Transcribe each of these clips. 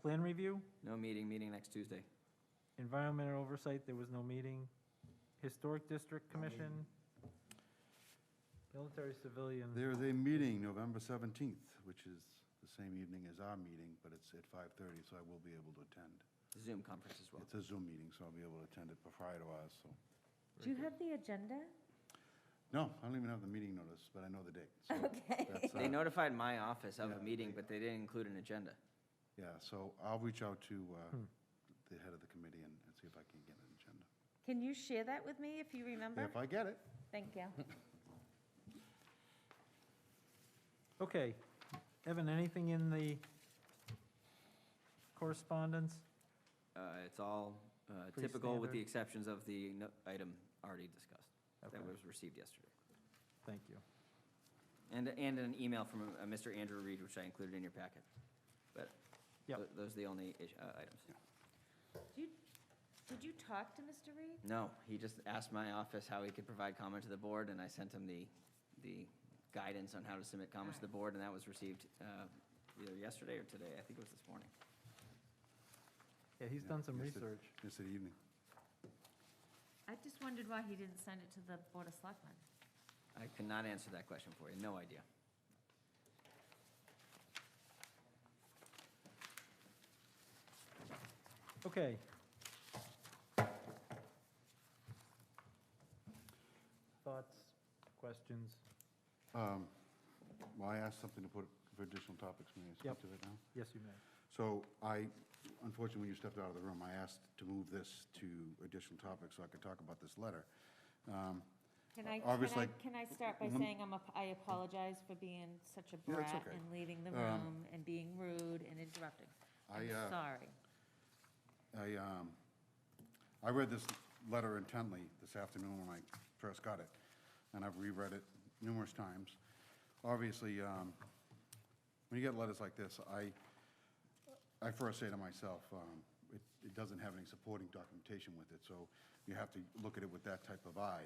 Plan review, No meeting, meeting next Tuesday. environmental oversight, there was no meeting. Historic District Commission, military civilian, There is a meeting November 17th, which is the same evening as our meeting, but it's at 5:30, so I will be able to attend. Zoom conference as well. It's a Zoom meeting, so I'll be able to attend it prior to ours, so. Do you have the agenda? No, I don't even have the meeting notice, but I know the date. uh, Okay. They notified my office of a Yeah. meeting, but they didn't include an agenda. Yeah, so I'll reach out to uh, Hmm. the head of the committee and and see if I can get an agenda. Can you share that with me if you remember? If I get it. Thank you. okay. Evan, anything in the correspondence? Uh, It's all uh, typical, with standard. the exceptions of the no- item already discussed Okay. that was received yesterday. Thank you. And, and an email from uh, Mr. Andrew Reed, which I included in your packet. But Yep. tho- those are the only ish- uh, items. Do you- Did you talk to Mr. Reed? No, he just asked my office how he could provide comment to the board, and I sent him the, the guidance on how to submit comments to the board, and that was received uh, either yesterday or today. I think it was this morning. Yeah, he's done some Yesterday- research. Yesterday evening. I just wondered why he didn't send it to the Board of Selectmen. I cannot answer that question for you. No idea. Okay. Thoughts, questions? Um, Well, I asked something to put for additional topics, may I Yep. speak to it now? Yes, you may. So I, unfortunately, when you stepped out of the room, I asked to move this to additional topics so I could talk about this letter. Um, Can I, can I, Obviously- Mm-hmm. can I start by saying I'm, a- I apologize for being such a Yeah, that's brat okay. and leaving the Um, room and being rude and interrupting? I'm I, uh, sorry. I, um, I read this letter intently this afternoon when I first got it, and I've reread it numerous times. Obviously, um, when you get letters like this, I, I first say to myself, um, it, it doesn't have any supporting documentation with it, so you have to look at it with that type of eye.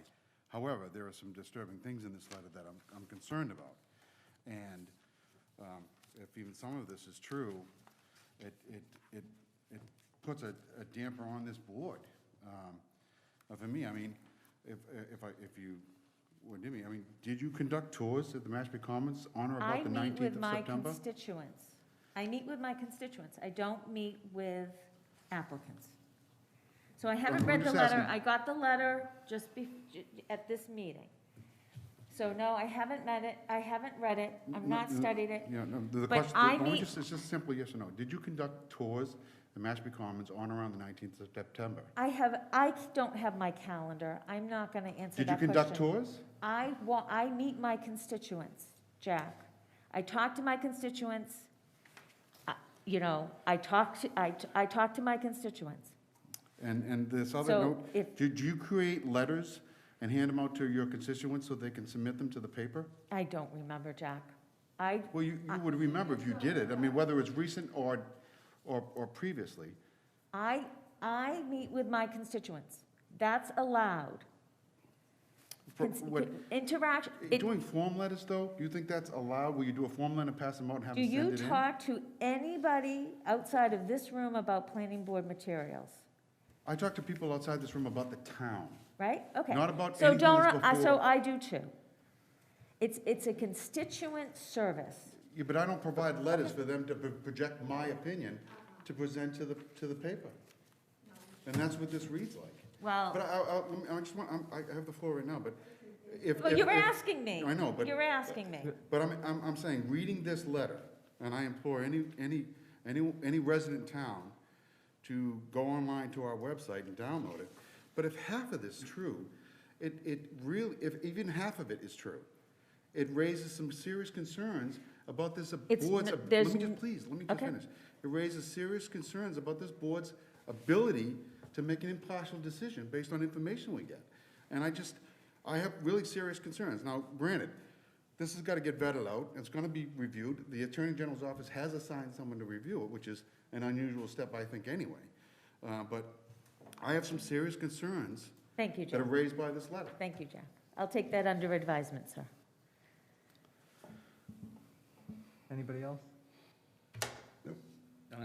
However, there are some disturbing things in this letter that I'm, I'm concerned about. And um, if even some of this is true, it, it, it, it puts a a damper on this board. Um, uh, For me, I mean, if, if I, if you, what do you mean? I mean, did you conduct tours at the Mashpee Commons on or I about the meet 19th with of my September? constituents. I meet with my constituents. I don't meet with applicants. So I haven't I'm read the just letter. asking- I got the letter just be, at this meeting. So no, I haven't met it. I haven't read it. I've not No, no, studied it. Yeah, no, the- the But question, I the- only meet- just, it's just simple yes or no. Did you conduct tours at Mashpee Commons on or around the 19th of September? I have, I don't have my calendar. I'm not going to answer Did you that question. conduct tours? I wa, I meet my constituents, Jack. I talk to my constituents. I- You know, I talk to, I, I talk to my constituents. And, and this other So note, if- did you create letters and hand them out to your constituents so they can submit them to the paper? I don't remember, Jack. I, Well, you, you would remember if you did it. I mean, whether it's recent or, or, or previously. I, I meet with my constituents. That's allowed. For- Cons- what- Interaction, it- Doing form letters, though, do you think that's allowed? Will you do a form letter, pass them out, and have do them send you it in? talk to anybody outside of this room about planning board materials? I talk to people outside this room about the town. Right? Okay. Not about So anything don't, that's I- So before- I do too. It's, it's a constituent service. Yeah, but I don't provide letters for them to pro- project my opinion to present to the, to the paper. And that's what this reads like. Well- But I, I, I just want, I'm- I have the floor right now, but if. Well, if- you were if- asking me. I know, but. You were asking me. But I'm, I'm, I'm saying, reading this letter, and I implore any, any, any, any resident town to go online to our website and download it. But if half of this is true, it, it really, if even half of it is true, it raises some serious concerns about this It's board's, n- ab- there's let me just, n- please, let me just Okay. finish. It raises serious concerns about this board's ability to make an impartial decision based on information we get. And I just, I have really serious concerns. Now, granted, this has got to get vetted out, it's going to be reviewed. The Attorney General's office has assigned someone to review it, which is an unusual step, I think, anyway. Uh, But I have some serious concerns Thank you, that are Jack. raised by this letter. Thank you, Jack. I'll take that under advisement, sir. Anybody else?